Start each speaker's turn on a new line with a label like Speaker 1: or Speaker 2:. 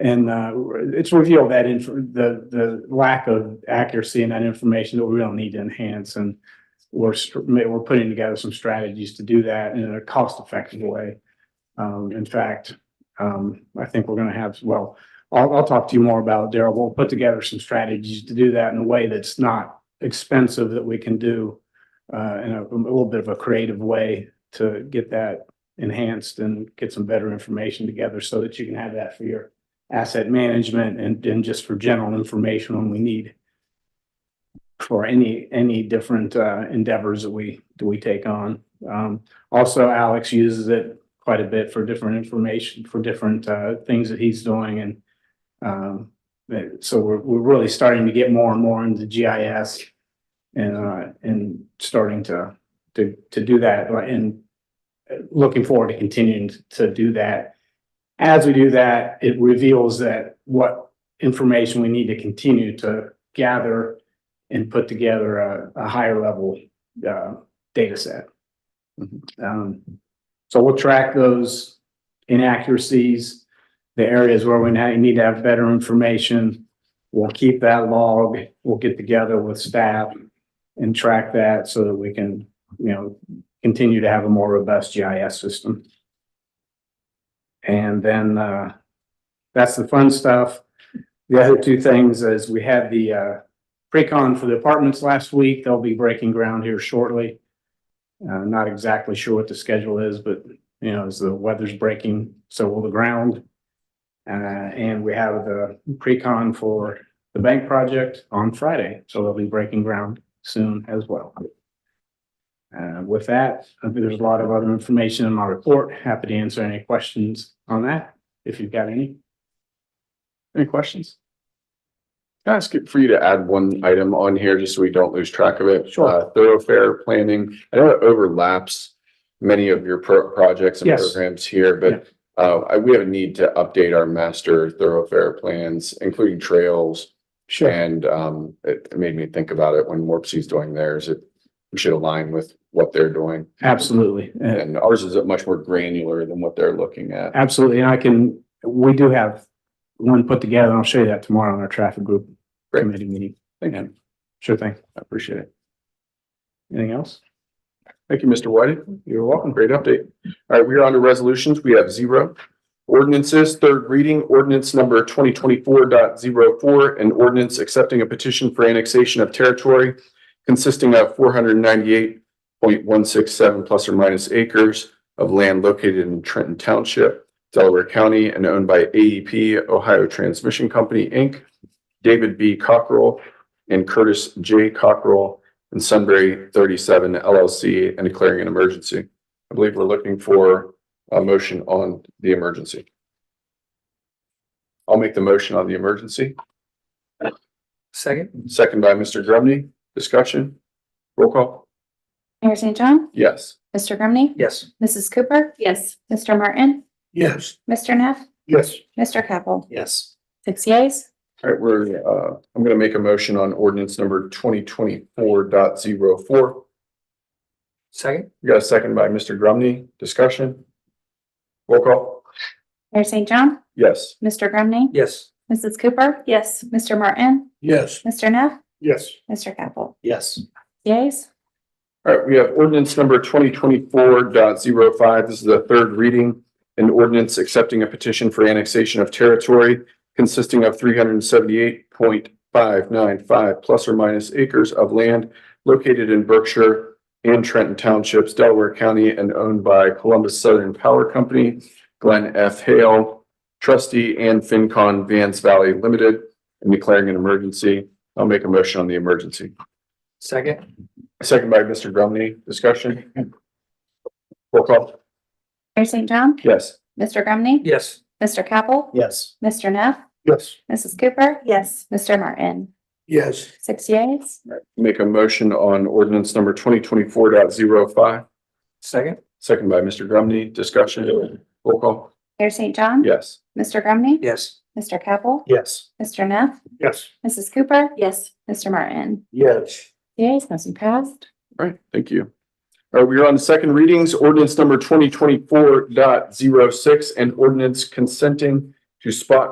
Speaker 1: And uh, it's revealed that inf the, the lack of accuracy in that information that we don't need to enhance and we're, str- we're putting together some strategies to do that in a cost-effective way. Um, in fact, um, I think we're gonna have, well, I'll, I'll talk to you more about it, Daryl. We'll put together some strategies to do that in a way that's not expensive that we can do uh, in a, a little bit of a creative way to get that enhanced and get some better information together so that you can have that for your asset management and, and just for general information when we need for any, any different uh, endeavors that we, that we take on. Um, also Alex uses it quite a bit for different information, for different uh, things that he's doing and um, that- so we're, we're really starting to get more and more into GIS and, uh, and starting to, to, to do that and uh, looking forward to continuing to do that. As we do that, it reveals that what information we need to continue to gather and put together a, a higher level, uh, data set. Um, so we'll track those inaccuracies, the areas where we now need to have better information. We'll keep that log, we'll get together with staff and track that so that we can, you know, continue to have a more robust GIS system. And then, uh, that's the fun stuff. The other two things is we had the, uh, pre-con for the apartments last week. They'll be breaking ground here shortly. Uh, not exactly sure what the schedule is, but you know, as the weather's breaking, so will the ground. Uh, and we have the pre-con for the bank project on Friday, so they'll be breaking ground soon as well. Uh, with that, I think there's a lot of other information in my report. Happy to answer any questions on that, if you've got any. Any questions?
Speaker 2: Can I ask you- for you to add one item on here, just so we don't lose track of it?
Speaker 1: Sure.
Speaker 2: Uh, Thoroughfare planning, I know it overlaps many of your pro- projects and
Speaker 1: Yes.
Speaker 2: programs here, but uh, I- we have a need to update our master thoroughfare plans, including trails. And um, it it made me think about it when Morpsey's doing theirs, it we should align with what they're doing.
Speaker 1: Absolutely. Uh,
Speaker 2: And ours is much more granular than what they're looking at.
Speaker 1: Absolutely, and I can, we do have one put together, and I'll show you that tomorrow in our traffic group
Speaker 2: Great.
Speaker 1: committee meeting.
Speaker 2: Thank you.
Speaker 1: Sure thing.
Speaker 2: I appreciate it.
Speaker 1: Anything else?
Speaker 2: Thank you, Mr. Whiting.
Speaker 1: You're welcome.
Speaker 2: Great update. All right, we are on to resolutions. We have zero. Ordinances, third reading, ordinance number 2024.04, an ordinance accepting a petition for annexation of territory consisting of four hundred ninety-eight point one six seven plus or minus acres of land located in Trenton Township, Delaware County, and owned by AEP Ohio Transmission Company, Inc., David B. Cockrell and Curtis J. Cockrell and Sunbury thirty-seven LLC, and declaring an emergency. I believe we're looking for a motion on the emergency. I'll make the motion on the emergency,
Speaker 3: Second?
Speaker 2: second by Mr. Grumney. Discussion? Roll call?
Speaker 4: Mayor St. John,
Speaker 2: Yes.
Speaker 4: Mr. Grumney,
Speaker 3: Yes.
Speaker 4: Mrs. Cooper. Yes. Mr. Martin,
Speaker 3: Yes.
Speaker 4: Mr. Neff,
Speaker 3: Yes.
Speaker 4: Mr. Capel,
Speaker 3: Yes.
Speaker 4: six yeas.
Speaker 2: All right, we're, uh, I'm gonna make a motion on ordinance number twenty twenty-four dot zero four.
Speaker 3: Second?
Speaker 2: We got a second by Mr. Grumney. Discussion? Roll call?
Speaker 4: Mayor St. John,
Speaker 2: Yes.
Speaker 4: Mr. Grumney,
Speaker 3: Yes.
Speaker 4: Mrs. Cooper. Yes. Mr. Martin,
Speaker 3: Yes.
Speaker 4: Mr. Neff,
Speaker 3: Yes.
Speaker 4: Mr. Capel,
Speaker 3: Yes.
Speaker 4: yeas.
Speaker 2: All right, we have ordinance number twenty twenty-four dot zero five. This is the third reading. An ordinance accepting a petition for annexation of territory consisting of three hundred and seventy-eight point five nine five plus or minus acres of land located in Berkshire and Trenton Townships, Delaware County, and owned by Columbus Southern Power Company, Glenn F. Hale, trustee, and FinCon Vance Valley Limited, and declaring an emergency. I'll make a motion on the emergency.
Speaker 3: Second?
Speaker 2: Second by Mr. Grumney, discussion? Roll call.
Speaker 4: Mayor St. John,
Speaker 2: Yes.
Speaker 4: Mr. Grumney,
Speaker 3: Yes.
Speaker 4: Mr. Capel,
Speaker 3: Yes.
Speaker 4: Mr. Neff,
Speaker 3: Yes.
Speaker 4: Mrs. Cooper. Yes. Mr. Martin,
Speaker 3: Yes.
Speaker 4: six yeas.
Speaker 2: Make a motion on ordinance number twenty twenty-four dot zero five.
Speaker 3: Second?
Speaker 2: Second by Mr. Grumney, discussion? Roll call.
Speaker 4: Mayor St. John,
Speaker 2: Yes.
Speaker 4: Mr. Grumney,
Speaker 3: Yes.
Speaker 4: Mr. Capel,
Speaker 3: Yes.
Speaker 4: Mr. Neff,
Speaker 3: Yes.
Speaker 4: Mrs. Cooper. Yes. Mr. Martin,
Speaker 3: Yes.
Speaker 4: yeas, motion passed.
Speaker 2: All right, thank you. All right, we are on the second readings, ordinance number twenty twenty-four dot zero six and ordinance consenting to spot